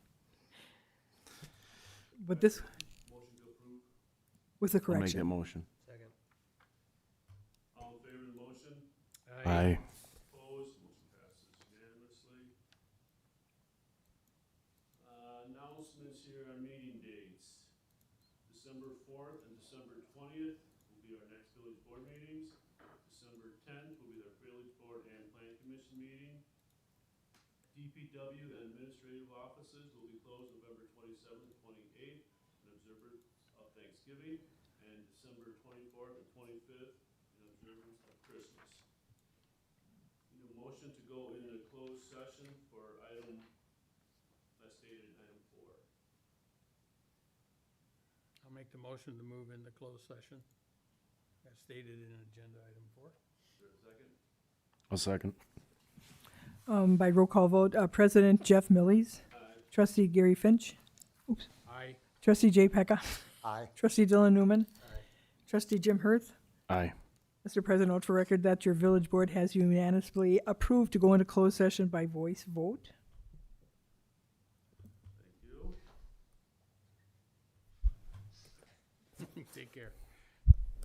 But this. With the I'll make that correction. motion. Second. All in favor of the motion? Aye. Opposed? Motion passes unanimously. Uh, Announcements here on meeting dates. December fourth and December twentieth will be our next village board meetings. December tenth will be our village board and planning commission meeting. DPW and administrative offices will be closed November twenty-seventh, twenty-eighth in observance of Thanksgiving and December twenty-fourth and twenty-fifth in observance of Christmas. Need a motion to go in a closed session for item, as stated, item four. I'll make the motion to move into closed session. As stated in agenda item four. Is there a second? I'll second. Um, by roll call vote, uh, President Jeff Millies, Aye. trustee Gary Finch, Aye. trustee Jay Pecca, Aye. trustee Dylan Newman, Aye. trustee Jim Hirth. Aye. Mr. President, note for record that your village board has unanimously approved to go into closed session by voice vote. Thank you. Take care.